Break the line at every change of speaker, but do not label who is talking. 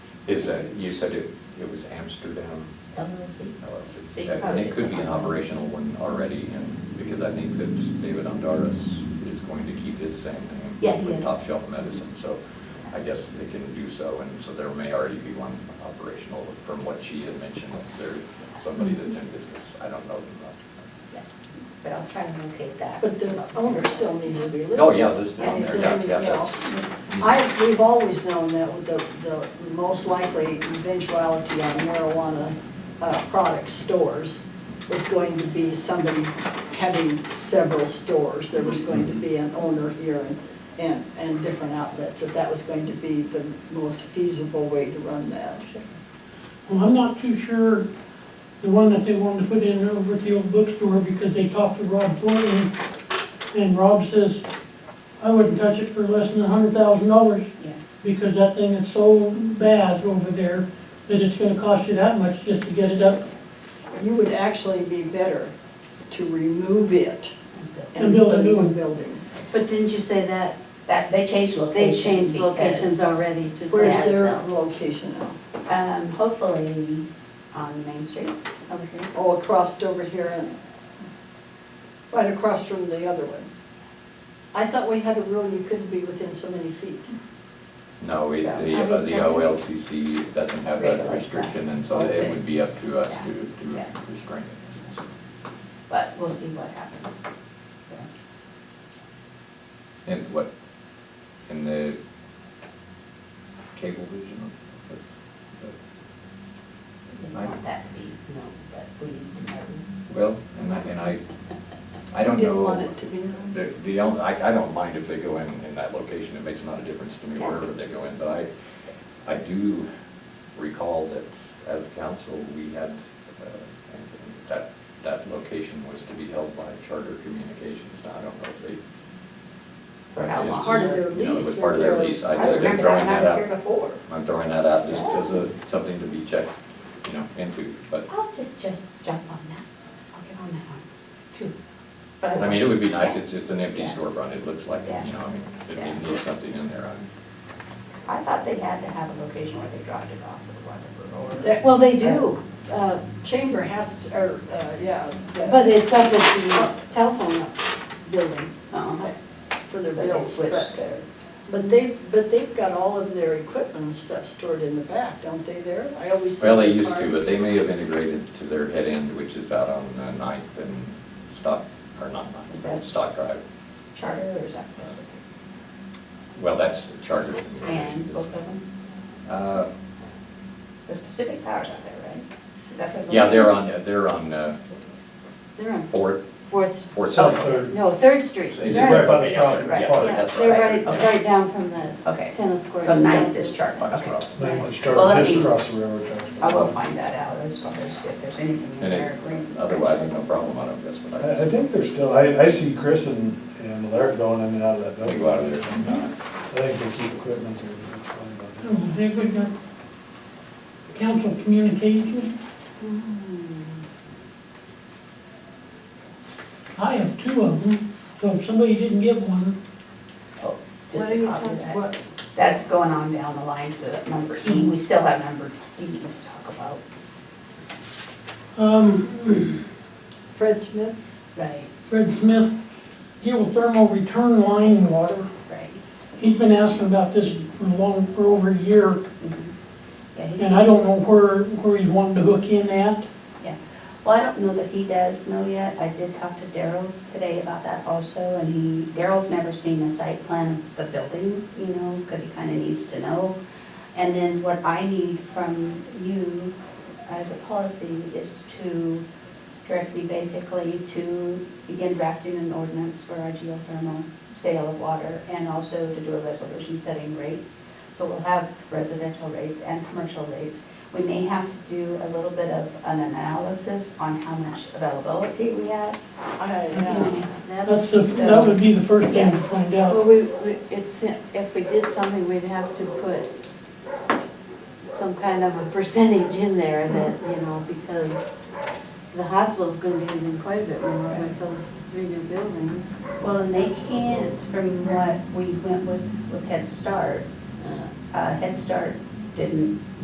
Is that, you said it, it was Amsterdam
LLC. So
LLC?
you
And
probably-
it could be an operational one already, and, because I think that David Ondaris is going to keep his same name.
Yeah, he
with
is.
Top Shelf Medicine, so I guess they can do so, and so there may already be one operational from what she had mentioned, if there's somebody that's in business, I don't know them much.
Yeah. But I'll try and locate that.
But the owner still needs to be listed.
Oh, yeah, listed on there, yeah, yeah,
And
that's.
I, we've always known that the, the most likely eventuality on marijuana uh, product stores was going to be somebody having several stores. There was going to be an owner here and, and, and different outlets, that that was going to be the most feasible way to run that.
Well, I'm not too sure the one that they wanted to put in over at the old bookstore because they talked to Rob Thornton. And Rob says, I wouldn't touch it for less than a hundred thousand dollars
Yeah.
because that thing is so bad over there that it's gonna cost you that much just to get it up
You would actually be better to remove it
And
and
build a
put a
new
new
one.
building.
But didn't you say that,
That, they changed
they
locations.
changed locations
because,
already to
Where's
say,
their
Yeah.
location now?
Um, hopefully on Main Street over here.
Oh, across over here and, right across from the other one. I thought we had a rule you couldn't be within so many feet.
No, we-
So,
the,
I
uh,
mean,
the
generally-
OLCC doesn't have that
Regulates that.
restriction, and so
Okay.
it would be up to us
Yeah,
to, to
yeah.
restrain it. so.
But we'll see what happens. So,
And what, in the cable vision? that's-
We
that-
didn't want that to be, no, but we need to know.
Well, and I, and I, I don't know.
Didn't want it to be known.
The, the only, I, I don't mind if they go in, in that location, it makes not a difference to me wherever they go in, but I, I do recall that as council, we had, uh, and that, that location was to be held by Charter Communications, now I don't know if they.
For how
It's
long?
just-
Part of their
you know, It was
lease
part of
or
their
their-
lease, I
I
just am
remember that
throwing
when I
that
was here
out,
before.
I'm throwing that out just as a, something to be checked, you know, into, but,
I'll just, just jump on that. I'll get on that one, too. But
I mean, it would be nice,
Yeah.
it's, it's an empty
Yeah.
storefront, it looks like, it,
Yeah.
you know, I mean, it-
Yeah.
it needs something in there, I'm.
I thought they had to have a location where they dropped it off or whatever,
That
well, they do, uh,
chamber has to, or, uh, yeah,
but
that-
it's up at the telephone building. Uh-huh.
for
or.
their
So they
bills.
switched
But
their,
but they, but they've got all of their equipment and stuff stored in the back, don't they there? I always see.
Well, they
their
used to,
cars.
but they may have integrated to their head end, which is out on uh, Ninth and Stock, or not
Is that-
Ninth, uh, Stock Drive.
charter or something.
Well, that's Charter
And
Communications.
both of them,
Uh,
the specific powers out there, right? Is that what it
Yeah,
was?
they're on, they're on uh,
They're on
Fourth,
Fourth,
Fourth.
South
Avenue.
Third.
no, Third Street.
Is it
They're-
right by the shop?
Right,
Park.
Yeah,
that's
they're right,
yeah.
right down from the
Okay.
tennis court.
So ninth is charter, okay.
Right.
They want to
Well, let
start just
me-
across the railroad tracks.
I will find that out as far as if there's anything in
And it-
their agreement.
Otherwise, no problem, I don't guess, but I
I, I
just,
think they're still, I, I see Chris and, and Larry going in and out of that
we
building.
go out of there sometime.
I think they keep equipment there. It's fine, but-
Oh, They would got council communication. Hmm. I have two of them, so if somebody didn't get one,
Oh,
What
Just
are
a
you
copy
talking-
of that.
what-
That's going on down the line to number E. We still have number D to talk about.
um,
Fred Smith,
Right,
Fred Smith, geothermal return line water.
right.
He's been asking about this for long, for over a year,
Yeah, he-
and I don't know where, where he's wanting to hook in at.
Well, I don't know that he does know yet. I did talk to Daryl today about that also, and he, Daryl's never seen a site plan of the building, you know, because he kind of needs to know. And then what I need from you as a policy is to direct me basically to begin drafting an ordinance for our geothermal sale of water, and also to do a resolution setting rates. So we'll have residential rates and commercial rates. We may have to do a little bit of an analysis on how much availability we have.
I,
uh,
Yeah.
That's,
That's, the- that would be the first thing to find
well,
out.
we, we- it's, if we did something, we'd have to put some kind of a percentage in there that, you know, because the hospital's gonna be using quite a bit more with those three new buildings.
Well, and they can't, from what we went with, with Head Start, uh, Head Start didn't